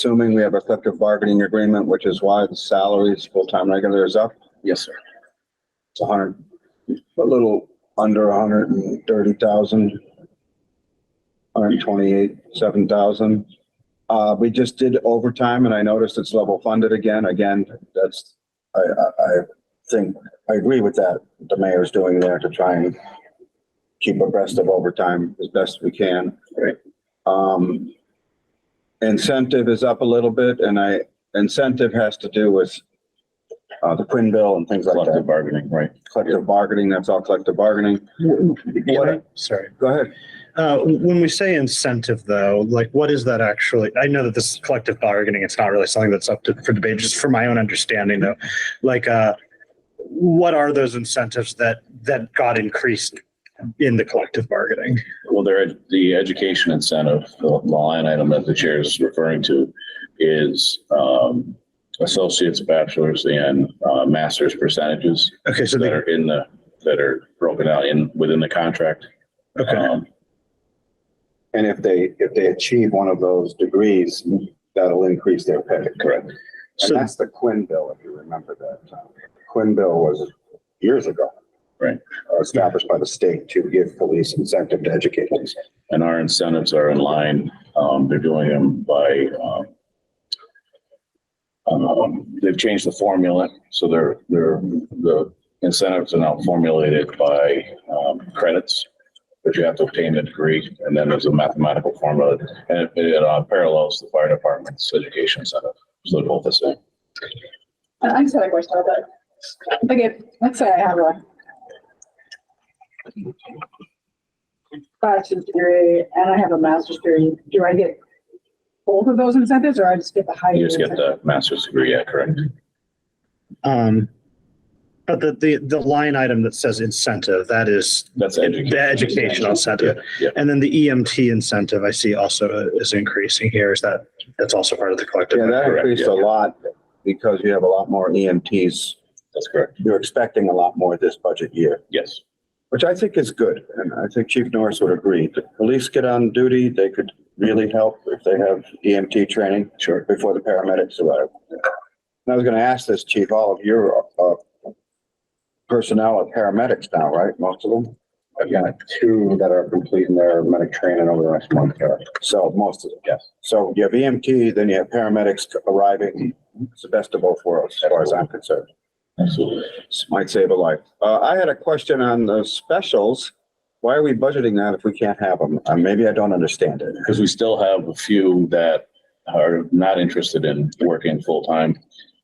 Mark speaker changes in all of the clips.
Speaker 1: Assuming we have a collective bargaining agreement, which is why the salaries, full-time regular is up.
Speaker 2: Yes, sir.
Speaker 1: It's a hundred, a little under a hundred and thirty thousand. Hundred and twenty-eight, seven thousand. Uh, we just did overtime and I noticed it's level funded again. Again, that's, I, I, I think, I agree with that. The mayor's doing there to try and keep abreast of overtime as best we can.
Speaker 2: Right.
Speaker 1: Um, incentive is up a little bit and I, incentive has to do with uh, the Quinn bill and things like that
Speaker 3: Collective bargaining, right.
Speaker 1: collective bargaining, that's all collective bargaining. What-
Speaker 4: Sorry.
Speaker 1: Go ahead.
Speaker 4: Uh, when we say incentive though, like what is that actually? I know that this is collective bargaining, it's not really something that's up to, for debate, just for my own understanding though. Like, uh, what are those incentives that, that got increased in the collective bargaining?
Speaker 3: Well, there, the education incentive, the line item that the chair is referring to is um, associates, bachelor's and uh, master's percentages
Speaker 4: Okay, so
Speaker 3: that
Speaker 4: they,
Speaker 3: are in the, that are broken out in, within the contract.
Speaker 4: okay,
Speaker 3: Um,
Speaker 1: And if they, if they achieve one of those degrees, that'll increase their pay. Correct. And
Speaker 4: so,
Speaker 1: that's the Quinn bill, if you remember that. uh, Quinn bill was years ago.
Speaker 3: Right.
Speaker 1: uh, Established by the state to give police incentive to educate themselves.
Speaker 3: And our incentives are in line. Um, They're doing them by, um, um, they've changed the formula, so they're, they're, the incentives are now formulated by um, credits, but you have to obtain a degree, and then there's a mathematical formula, and it- it uh, parallels the fire department's education incentive. So they're both the same.
Speaker 5: I I just had a question about that. Like, if- let's say I have a bachelor's degree and I have a master's degree, do I get both of those incentives or I just get the higher?
Speaker 3: You just get
Speaker 5: incentive?
Speaker 3: the master's degree, yeah, correct?
Speaker 4: um, but the, the, the line item that says incentive, that is
Speaker 3: That's education.
Speaker 4: the educational incentive.
Speaker 3: Yeah, yeah.
Speaker 4: And then the EMT incentive I see also is increasing here. Is that, that's also part of the collective?
Speaker 1: Yeah, that
Speaker 3: Correct,
Speaker 1: increased a
Speaker 3: yeah.
Speaker 1: lot because you have a lot more EMTs.
Speaker 3: That's correct,
Speaker 1: You're expecting a lot more this budget year.
Speaker 3: yes.
Speaker 1: Which I think is good, and I think Chief Norris would agree. The police get on duty, they could really help if they have EMT training. Sure. Before the paramedics arrive. And I was gonna ask this, Chief, all of your, uh, personnel are paramedics now, right? Most of them?
Speaker 6: I've got two that are completing their medic training over the next month here.
Speaker 1: So, most of them.
Speaker 6: Yes.
Speaker 1: So you have EMT, then you have paramedics arriving. It's the best of both worlds, as far as I'm concerned.
Speaker 3: Absolutely.
Speaker 1: Might save a life. Uh, I had a question on the specials. Why are we budgeting that if we can't have them? Uh, maybe I don't understand it.
Speaker 3: because we still have a few that are not interested in working full-time.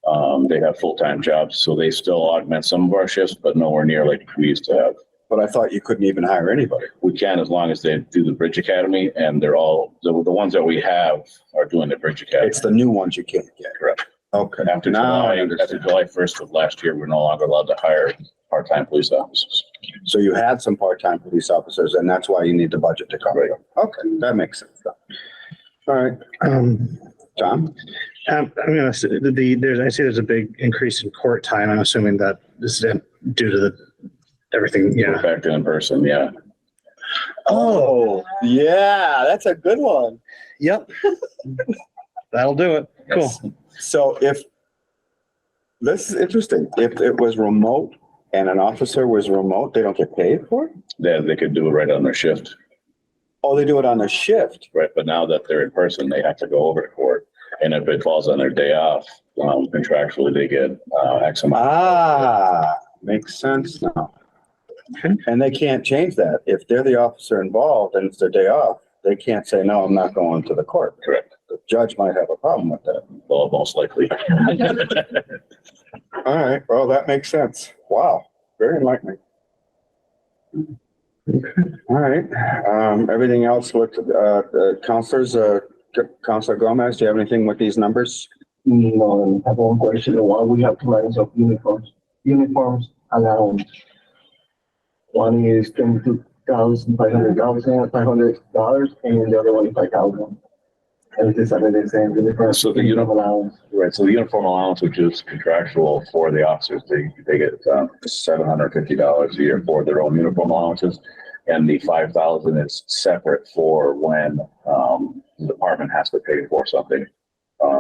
Speaker 3: Um, they have full-time jobs, so they still augment some of our shifts, but nowhere near like we used to have.
Speaker 1: But I thought you couldn't even hire anybody.
Speaker 3: We can as long as they do the Bridge Academy and they're all, the, the ones that we have are doing the Bridge Academy.
Speaker 1: It's the new ones you can't get.
Speaker 3: Correct.
Speaker 1: Okay.
Speaker 3: After
Speaker 1: Now I
Speaker 3: July, after
Speaker 1: understand.
Speaker 3: July first of last year, we're no longer allowed to hire part-time police officers.
Speaker 1: So you had some part-time police officers and that's why you need the budget to cover them. Okay, that makes sense. All right,
Speaker 4: Um,
Speaker 1: Tom?
Speaker 4: Um, I mean, I see the- the, there's, I see there's a big increase in court time. I'm assuming that this is due to the, everything,
Speaker 3: We're
Speaker 4: yeah.
Speaker 3: back to in person, yeah.
Speaker 4: Oh,
Speaker 1: yeah, that's a good one.
Speaker 4: yep. That'll do it. Cool.
Speaker 1: So if, this is interesting. If it was remote and an officer was remote, they don't get paid for it?
Speaker 3: They, they could do it right on their shift,
Speaker 1: Oh, they do it on their shift.
Speaker 3: right? But now that they're in person, they have to go over to court. And if it falls on their day off, um, contractually, they get, uh, X amount.
Speaker 1: Ah, makes sense now.
Speaker 4: Okay.
Speaker 1: And they can't change that. If they're the officer involved and it's their day off, they can't say, no, I'm not going to the court.
Speaker 3: Correct.
Speaker 1: The judge might have a problem with that.
Speaker 3: Well, most likely.
Speaker 1: All right, well, that makes sense. Wow, very enlightening. All right, um, everything else looked, uh, the counselors, uh, Counselor Gomez, do you have anything with these numbers?
Speaker 7: No, I have one question, why we have two lines of uniforms, uniforms allowance. One is twenty-two thousand, five hundred thousand, five hundred dollars, and the other one is five thousand. And it is under the same uniform.
Speaker 3: So the uni-
Speaker 7: Allowance.
Speaker 3: Right, so the uniform allowance, which is contractual for the officers, they, they get, um, seven hundred fifty dollars a year for their own uniform allowances. And the five thousand is separate for when, um, the department has to pay for something.